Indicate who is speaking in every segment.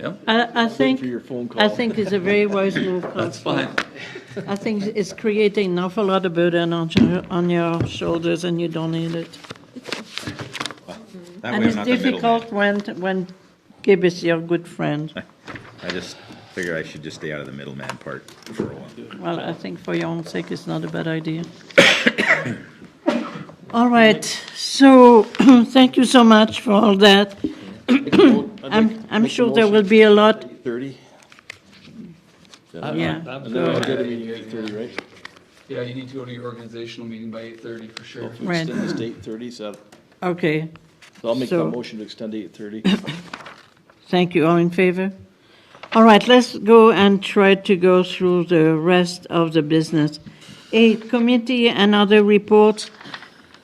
Speaker 1: Yep,
Speaker 2: I, I think, Oh,
Speaker 3: for your phone call.
Speaker 2: I think it's a very wise move,
Speaker 1: that's
Speaker 2: Counselor.
Speaker 1: fine.
Speaker 2: I think it's creating an awful lot of burden on your, on your shoulders, and you don't need it.
Speaker 4: That
Speaker 2: And
Speaker 4: way I'm
Speaker 2: it's
Speaker 4: not the middleman.
Speaker 2: difficult when, when Gib is your good friend.
Speaker 4: I just figure I should just stay out of the middleman part for a while.
Speaker 2: Well, I think for your own sake, it's not a bad idea. All right, so, thank you so much for all that. I'm, I'm sure there will be a lot,
Speaker 3: Thirty?
Speaker 2: yeah.
Speaker 3: And then I'll get a meeting at eight thirty, right?
Speaker 1: Yeah, you need to go to your organizational meeting by eight thirty for sure.
Speaker 3: If we
Speaker 2: Right.
Speaker 3: Extend this to eight thirty, so
Speaker 2: Okay,
Speaker 3: so I'll make a
Speaker 2: So-
Speaker 3: motion to extend to eight thirty.
Speaker 2: thank you, all in favor? All right, let's go and try to go through the rest of the business. A committee and other reports.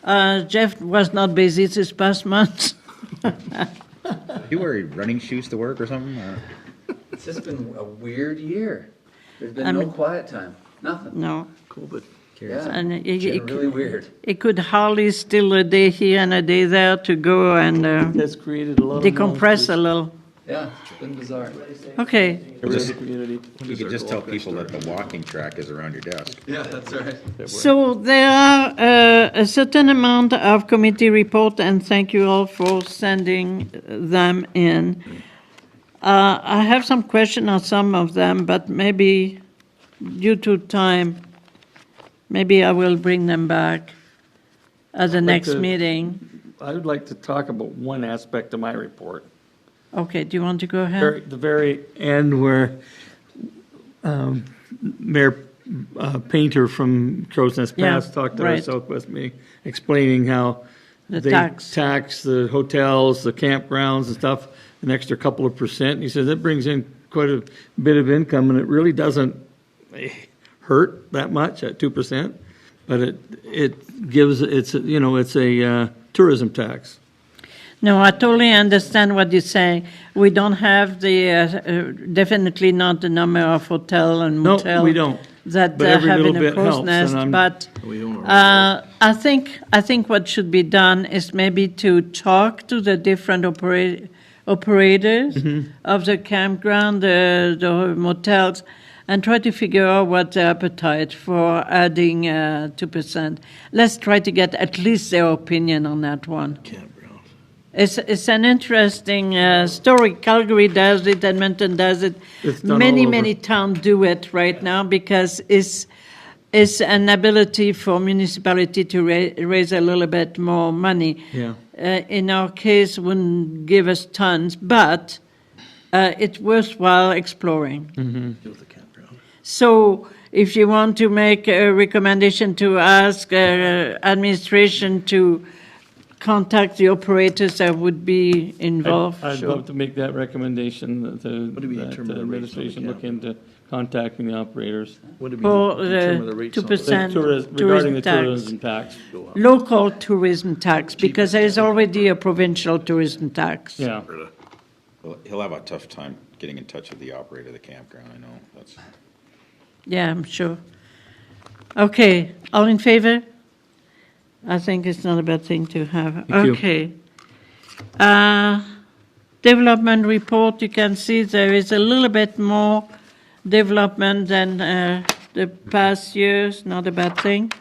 Speaker 2: Uh, Jeff was not busy this past month.
Speaker 4: You wear running shoes to work or something? or-
Speaker 1: It's just been a weird year. There's
Speaker 2: I
Speaker 1: been no
Speaker 2: mean-
Speaker 1: quiet time, nothing.
Speaker 2: No,
Speaker 1: Yeah,
Speaker 2: and it-
Speaker 1: it's
Speaker 2: it-
Speaker 1: been really weird.
Speaker 2: It could hardly steal a day here and a day there to go and uh,
Speaker 3: That's created a lot of.
Speaker 2: decompress a little.
Speaker 1: Yeah, it's been bizarre.
Speaker 2: Okay,
Speaker 3: Every other community.
Speaker 4: You could just tell people that the walking track is around your desk.
Speaker 1: Yeah, that's right.
Speaker 2: so there are uh, a certain amount of committee report, and thank you all for sending them in. Uh, I have some question on some of them, but maybe due to time, maybe I will bring them back at the next
Speaker 5: to-
Speaker 2: meeting.
Speaker 5: I would like to talk about one aspect of my report.
Speaker 2: Okay, do you want to go
Speaker 5: Very-
Speaker 2: ahead?
Speaker 5: The very end where um, Mayor uh, Painter from Crow's Nest
Speaker 2: Yeah,
Speaker 5: Pass talked at our
Speaker 2: right.
Speaker 5: Southwest meeting, explaining how
Speaker 2: The
Speaker 5: they
Speaker 2: tax.
Speaker 5: tax the hotels, the campgrounds and stuff, an extra couple of percent. And He says that brings in quite a bit of income and it really doesn't eh, hurt that much at 2%. But it, it gives, it's, a- you know, it's a uh, tourism tax.
Speaker 2: No, I totally understand what you're saying. We don't have the, uh, uh, definitely not the number of hotel and
Speaker 5: No,
Speaker 2: motel.
Speaker 5: we don't.
Speaker 2: That
Speaker 5: But
Speaker 2: uh,
Speaker 5: every
Speaker 2: have in
Speaker 5: little
Speaker 2: a
Speaker 5: bit
Speaker 2: crow's
Speaker 5: helps, and
Speaker 2: nest,
Speaker 5: I'm-
Speaker 2: but uh, I think, I think what should be done is maybe to talk to the different opera- operators
Speaker 5: Mm-hmm.
Speaker 2: of the campground, the the motels, and try to figure out what the appetite for adding uh, 2%. Let's try to get at least their opinion on that one. It's, it's an interesting uh, story. Calgary does it, Edmonton does it.
Speaker 5: It's done
Speaker 2: Many,
Speaker 5: all over.
Speaker 2: many towns do it right now because it's, it's an ability for municipality to ra- raise a little bit more money.
Speaker 5: Yeah.
Speaker 2: Uh, in our case, wouldn't give us tons, but uh, it's worthwhile exploring. So if you want to make a recommendation to ask uh, administration to contact the operators that would be involved,
Speaker 5: I'd
Speaker 2: sure.
Speaker 5: love to make that recommendation, that the, that the administration look into contacting the operators.
Speaker 2: For the two percent
Speaker 5: Tourism- Regarding
Speaker 2: tourism
Speaker 5: the
Speaker 2: tax.
Speaker 5: tourism tax,
Speaker 2: Local tourism tax, because there is already a provincial tourism tax.
Speaker 5: yeah.
Speaker 4: He'll- He'll have a tough time getting in touch with the operator of the campground, I know. That's,
Speaker 2: Yeah, I'm sure. Okay, all in favor? I think it's not a bad thing to have.
Speaker 5: you.
Speaker 2: Okay. Uh, Development report, you can see there is a little bit more development than uh, the past years, not a bad thing.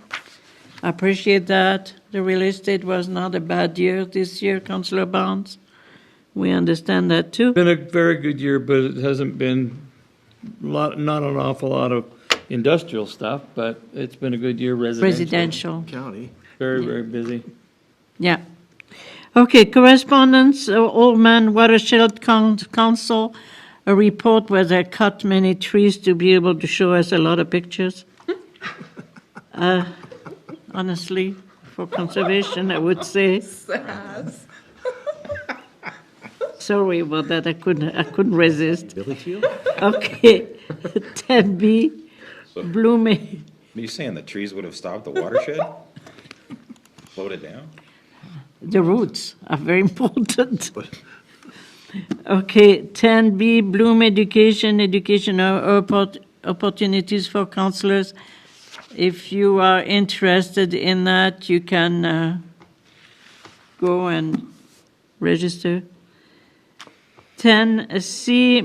Speaker 2: I appreciate that. The real estate was not a bad year this year, Councillor Barnes. We understand that too.
Speaker 5: Been a very good year, but it hasn't been lot, not an awful lot of industrial stuff, but it's been a good year residential.
Speaker 2: Residential.
Speaker 3: County.
Speaker 5: Very, very busy.
Speaker 2: Yeah. Okay, correspondence, uh, Old Man Watershed Coun- Council, a report where they cut many trees to be able to show us a lot of pictures. Uh, Honestly, for conservation, I would say. Sorry about that, I couldn't, I couldn't resist. Okay, 10B, blooming.
Speaker 4: are you saying the trees would have stopped the watershed? Slowed it down?
Speaker 2: The roots are very important. Okay, 10B, Bloom Education, educational oppor- opportunities for counselors. If you are interested in that, you can uh, go and register. 10C,